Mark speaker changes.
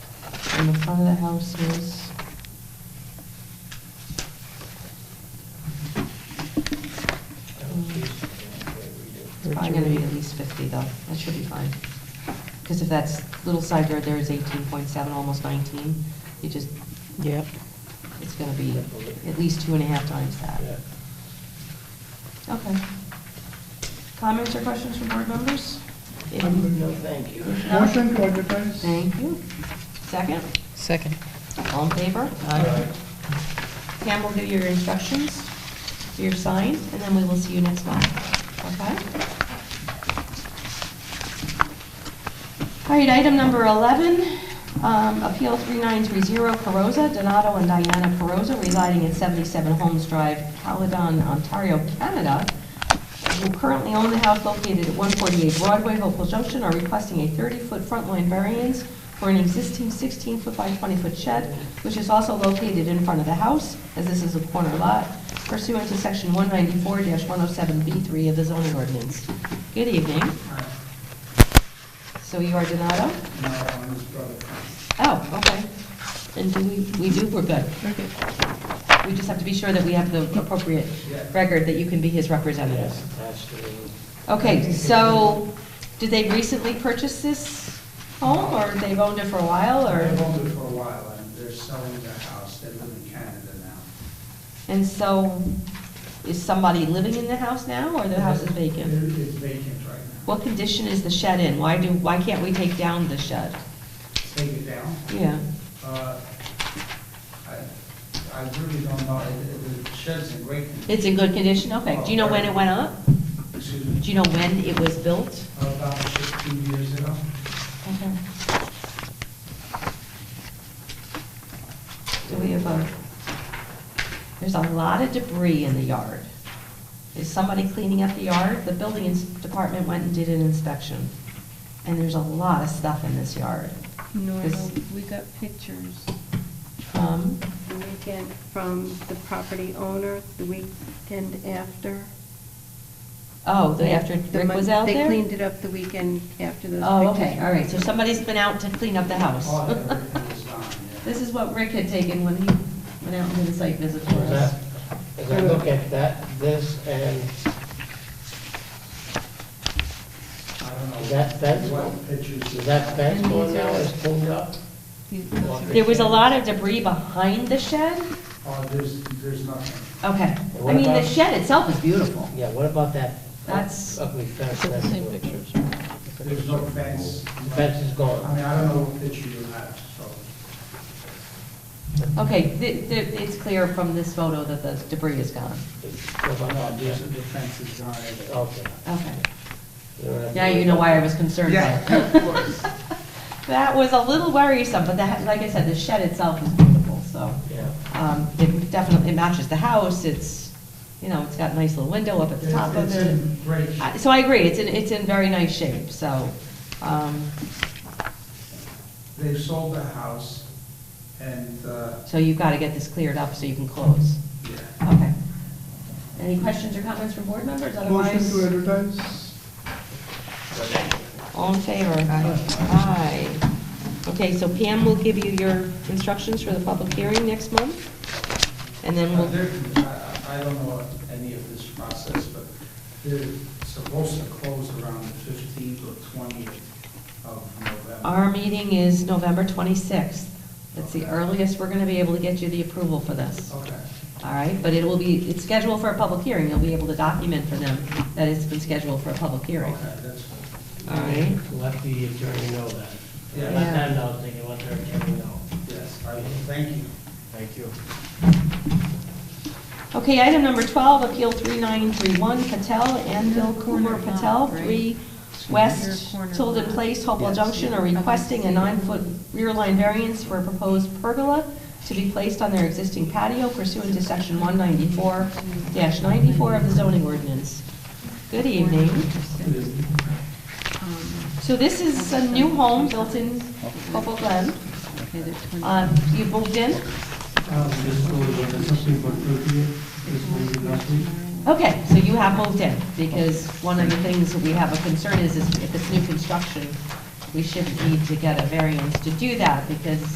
Speaker 1: and the front of the house is, it's probably gonna be at least 50 though, that should be fine. Because if that's little side yard there is 18.7, almost 19, you just,
Speaker 2: Yep.
Speaker 1: it's gonna be at least two and a half times that. Okay. Comments or questions from board members?
Speaker 3: No, thank you.
Speaker 4: Motion to advertise.
Speaker 1: Thank you. Second,
Speaker 2: Second.
Speaker 1: all in favor? Pam will do your instructions, do your sign, and then we will see you next month, okay? All right, item number 11, um, Appeal 3930 Carosa, Donato and Diana Carosa, residing at 77 Holmes Drive, Caledon, Ontario, Canada, who currently own the house located at 148 Broadway, Hopewell Junction, are requesting a 30-foot front line variance for an existing 16-foot by 20-foot shed, which is also located in front of the house, as this is a corner lot, pursuant to Section 194-107B3 of the zoning ordinance. Good evening. So you are Donato? Oh, okay. And do we, we do, we're good. We just have to be sure that we have the appropriate
Speaker 3: Yeah.
Speaker 1: record, that you can be his representative.
Speaker 3: Yes, absolutely.
Speaker 1: Okay, so, did they recently purchase this home, or they've owned it for a while,
Speaker 5: They've
Speaker 1: or?
Speaker 5: owned it for a while, and they're selling their house, they live in Canada now.
Speaker 1: And so, is somebody living in the house now, or the house is vacant?
Speaker 5: It- It's vacant right now.
Speaker 1: What condition is the shed in? Why do, why can't we take down the shed?
Speaker 5: Take it down.
Speaker 1: Yeah,
Speaker 5: Uh, I I really don't know, It- it- the shed's in great condition.
Speaker 1: it's in good condition, okay. Do you know when it went up?
Speaker 5: Excuse
Speaker 1: Do
Speaker 5: me,
Speaker 1: you know when it was built?
Speaker 5: about 15 years ago.
Speaker 1: Okay. Mm-hmm. Do we have a, there's a lot of debris in the yard. Is somebody cleaning up the yard? The building ins- department went and did an inspection, and there's a lot of stuff in this yard.
Speaker 6: No, I
Speaker 1: This-
Speaker 6: don't. we got pictures
Speaker 1: Um,
Speaker 6: the weekend from the property owner, the weekend after.
Speaker 1: Oh, the after
Speaker 6: The
Speaker 1: Rick
Speaker 6: mon-
Speaker 1: was out there?
Speaker 6: They cleaned it up the weekend after those pictures.
Speaker 1: Oh, okay, all right, so
Speaker 6: were
Speaker 1: somebody's been out to clean up the house.
Speaker 5: All that, everything is gone, yeah.
Speaker 1: This is what Rick had taken when he went out and did a site visit for us.
Speaker 3: That- As I look at that, this, and
Speaker 5: I don't know.
Speaker 3: That- that's-
Speaker 5: What pictures.
Speaker 3: is that fence going now is pulled up?
Speaker 6: these- those are-
Speaker 1: There was a lot of debris behind the shed?
Speaker 5: Oh, there's, there's nothing.
Speaker 1: Okay. I
Speaker 3: What
Speaker 1: mean, the
Speaker 3: about-
Speaker 1: shed itself is beautiful.
Speaker 3: Yeah, what about that?
Speaker 1: That's-
Speaker 3: Ugly fence. that's
Speaker 2: Same
Speaker 3: going-
Speaker 2: pictures.
Speaker 5: There's no fence.
Speaker 3: Fence is
Speaker 5: I
Speaker 3: gone.
Speaker 5: mean, I don't know what picture you have, so.
Speaker 1: Okay, th- th- it's clear from this photo that the debris is gone.
Speaker 3: What about
Speaker 5: No,
Speaker 3: that?
Speaker 5: there's,
Speaker 3: Yeah,
Speaker 5: the fence is gone.
Speaker 3: Okay.
Speaker 1: Okay.
Speaker 3: You know what I
Speaker 1: Now
Speaker 3: mean?
Speaker 1: you know why I was concerned by it.
Speaker 5: Yeah, of course.
Speaker 1: That was a little worrisome, but that, like I said, the shed itself is beautiful, so.
Speaker 3: Yeah.
Speaker 1: um, It definitely, it matches the house, it's, you know, it's got a nice little window up at the
Speaker 5: It's
Speaker 1: top of
Speaker 5: it's
Speaker 1: it.
Speaker 5: in great shape.
Speaker 1: I- So I agree, it's in, it's in very nice shape, so, um,
Speaker 5: They sold the house and, uh,
Speaker 1: so you've got to get this cleared up so you can close.
Speaker 5: yeah.
Speaker 1: Okay. Any questions or comments from board members?
Speaker 4: Motion
Speaker 1: Otherwise.
Speaker 4: to advertise.
Speaker 1: All in favor? Aye. Okay, so Pam will give you your instructions for the public hearing next month, and then we'll,
Speaker 5: But they're- I I- I don't know any of this process, but they're supposed to close around the 15th or 20th of November.
Speaker 1: our meeting is November 26th. That's the earliest we're going to be able to get you the approval for this, all
Speaker 5: Okay,
Speaker 1: right? But it will be, it's scheduled for a public hearing, you'll be able to document for them that it's been scheduled for a public hearing.
Speaker 5: okay, that's, fine.
Speaker 1: All right.
Speaker 3: Let the attorney know that.
Speaker 5: Yeah.
Speaker 3: Let them know, they can let their attorney know.
Speaker 5: yes, I, thank you.
Speaker 3: Thank you.
Speaker 1: Okay, item number 12, Appeal 3931, Patel, Anvil, Kumar, Patel, 3 West Tilden Place, Hopewell Junction, are requesting a nine-foot rear line variance for a proposed pergola to be placed on their existing patio pursuant to Section 194-94 of the zoning ordinance. Good evening.
Speaker 6: Um,
Speaker 1: So this is a new home built in Hopewell Glen.
Speaker 6: Okay, they're twenty-
Speaker 1: Um, You moved in?
Speaker 5: Um,
Speaker 1: Okay, so you have moved in, because one of the things that we have a concern is, is if it's new construction, we shouldn't need to get a variance to do that, because